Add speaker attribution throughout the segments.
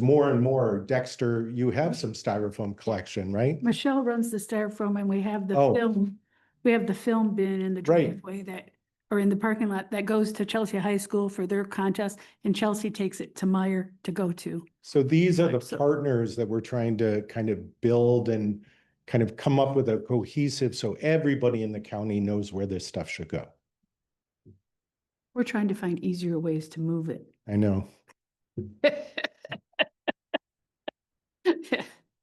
Speaker 1: more and more, Dexter, you have some styrofoam collection, right?
Speaker 2: Michelle runs the styrofoam and we have the
Speaker 1: Oh.
Speaker 2: film, we have the film bin in the
Speaker 1: Right.
Speaker 2: driveway that, or in the parking lot that goes to Chelsea High School for their contest and Chelsea takes it to Meyer to go to.
Speaker 1: So these are the
Speaker 2: So-
Speaker 1: partners that we're trying to kind of build and kind of come up with a cohesive, so everybody in the county knows where this stuff should go.
Speaker 2: We're trying to find easier ways to move it.
Speaker 1: I know.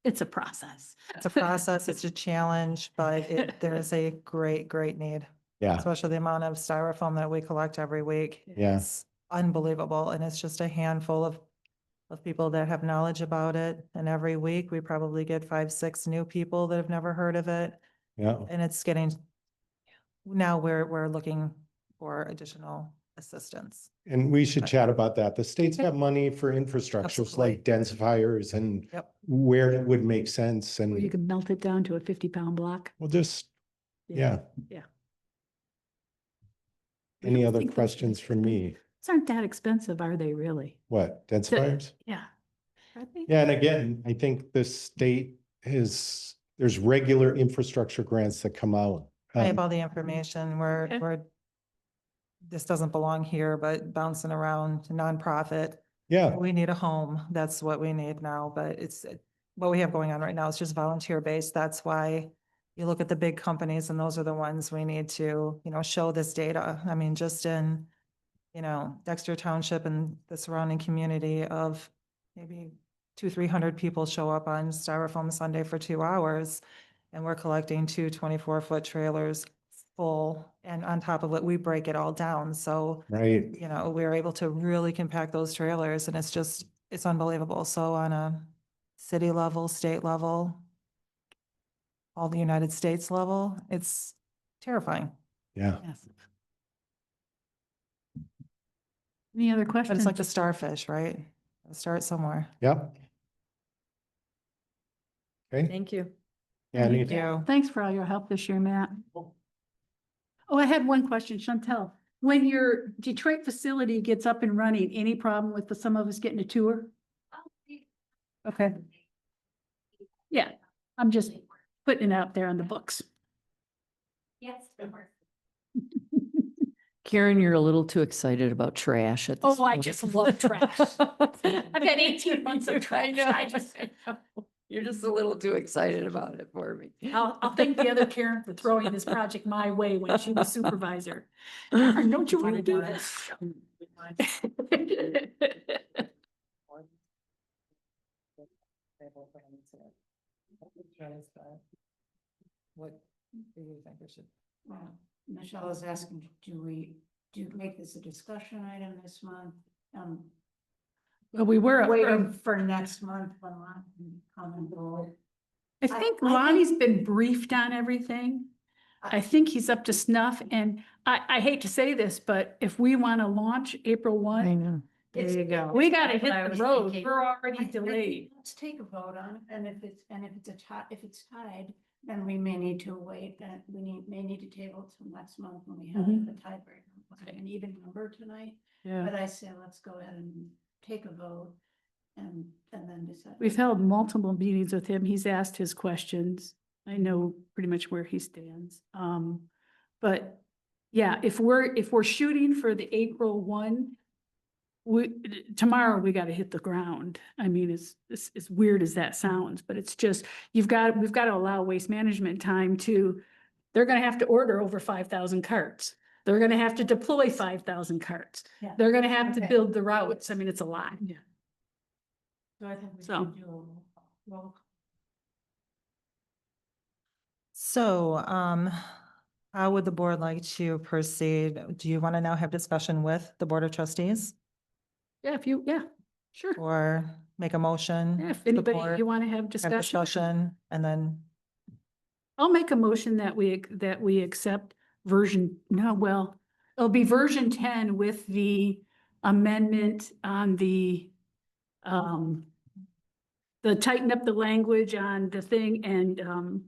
Speaker 2: It's a process.
Speaker 3: It's a process, it's a challenge, but it, there is a great, great need,
Speaker 1: Yeah,
Speaker 3: especially the amount of styrofoam that we collect every week.
Speaker 1: yeah,
Speaker 3: It's unbelievable, and it's just a handful of, of people that have knowledge about it. And every week, we probably get five, six new people that have never heard of it,
Speaker 1: yeah.
Speaker 3: and it's getting, now we're, we're looking for additional assistance.
Speaker 1: And we should chat about that. The states have money for infrastructures
Speaker 3: Absolutely.
Speaker 1: like densifiers and
Speaker 3: Yep.
Speaker 1: where it would make sense
Speaker 2: Or you
Speaker 1: and
Speaker 2: can melt it down to a fifty pound block.
Speaker 1: we'll just, yeah.
Speaker 2: yeah. I
Speaker 1: Any
Speaker 2: don't
Speaker 1: other
Speaker 2: think those are
Speaker 1: questions for me?
Speaker 2: These aren't that expensive, are they really?
Speaker 1: What, densifiers?
Speaker 2: Yeah. Are they?
Speaker 1: Yeah, and again, I think the state is, there's regular infrastructure grants that come out.
Speaker 3: I have
Speaker 1: um,
Speaker 3: all the information. We're,
Speaker 2: Okay.
Speaker 3: we're, this doesn't belong here, but bouncing around to nonprofit.
Speaker 1: Yeah,
Speaker 3: We need a home. That's what we need now, but it's, it- what we have going on right now is just volunteer based. That's why you look at the big companies and those are the ones we need to, you know, show this data. I mean, just in, you know, Dexter Township and the surrounding community of maybe two, three hundred people show up on Styrofoam Sunday for two hours. And we're collecting two 24 foot trailers full. And on top of it, we break it all down. So
Speaker 1: right.
Speaker 3: you know, we were able to really compact those trailers and it's just, it's unbelievable. So on a city level, state level, all the United States level, it's terrifying.
Speaker 1: Yeah,
Speaker 2: Yes. Any other
Speaker 3: But
Speaker 2: questions?
Speaker 3: it's like the starfish, right? Start somewhere.
Speaker 1: yep. Okay,
Speaker 3: Thank you.
Speaker 1: yeah, any-
Speaker 3: Thank you.
Speaker 2: Thanks for all your help this year, Matt. Oh, I had one question, Chantel. When your Detroit facility gets up and running, any problem with the- some of us getting a tour? Okay. Yeah, I'm just putting it out there on the books.
Speaker 4: Yes.
Speaker 5: Karen, you're a little too excited about trash at this.
Speaker 4: Oh, I
Speaker 5: point.
Speaker 4: just love trash. I've had eighteen months of trash. I just,
Speaker 5: You're just a little too excited about it for me.
Speaker 2: I'll, I'll thank the other Karen for throwing this project my way when she was supervisor. Karen,
Speaker 5: Karen,
Speaker 2: Don't you want to do this?
Speaker 3: What do you think we should?
Speaker 6: Well, Michelle is asking, do we, do you make this a discussion item this month? Um,
Speaker 2: Well, we were. up
Speaker 6: waiting
Speaker 2: early.
Speaker 6: for next month when I can come and go.
Speaker 2: I
Speaker 6: I-
Speaker 2: think
Speaker 6: I think-
Speaker 2: Lonnie's been briefed on everything. I think he's up to snuff and I, I hate to say this, but if we want to launch April
Speaker 5: I
Speaker 2: one,
Speaker 5: know.
Speaker 6: There you go.
Speaker 2: we got to
Speaker 4: That's what I
Speaker 2: hit
Speaker 4: was
Speaker 2: the road.
Speaker 4: thinking.
Speaker 2: We're already delayed.
Speaker 6: Let's take a vote on it, and if it's, and if it's a tie, if it's tied, then we may need to wait, and we need, may need to table till next month when we have
Speaker 2: Mhm.
Speaker 6: the tiebreaker.
Speaker 2: Okay.
Speaker 6: An even number tonight,
Speaker 2: Yeah.
Speaker 6: but I say let's go ahead and take a vote and, and then decide.
Speaker 2: We've held multiple meetings with him. He's asked his questions. I know pretty much where he stands. Um, but yeah, if we're, if we're shooting for the April one, we, tomorrow we got to hit the ground. I mean, it's, it's, as weird as that sounds, but it's just, you've got, we've got to allow waste management time to, they're going to have to order over five thousand carts. They're going to have to deploy five thousand carts.
Speaker 6: Yeah.
Speaker 2: They're going to have to
Speaker 6: Okay.
Speaker 2: build the routes. I mean, it's a lot. Yeah.
Speaker 6: So I think we
Speaker 2: So.
Speaker 6: should do a roll call. Roll
Speaker 3: So, um, how would the board like to proceed? Do you want to now have discussion with the Board of Trustees
Speaker 2: Yeah, if you, yeah, sure.
Speaker 3: or make a
Speaker 2: Yeah,
Speaker 3: motion?
Speaker 2: If anybody,
Speaker 3: support,
Speaker 2: you want to have
Speaker 3: have
Speaker 2: discussion,
Speaker 3: Discussion and then,
Speaker 2: I'll make a motion that we, ac- that we accept version, no, well, it'll be version ten with the amendment on the, um, the tighten up the language on the thing and, um,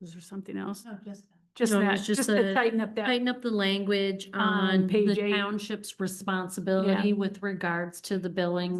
Speaker 2: was there something else?
Speaker 6: No, just that.
Speaker 2: Just
Speaker 4: No, it
Speaker 2: that,
Speaker 4: was just
Speaker 2: just to
Speaker 4: a
Speaker 2: tighten up that,
Speaker 4: tighten up the language
Speaker 2: On
Speaker 4: on
Speaker 2: page
Speaker 4: the
Speaker 2: eight.
Speaker 4: township's responsibility with regards to the billing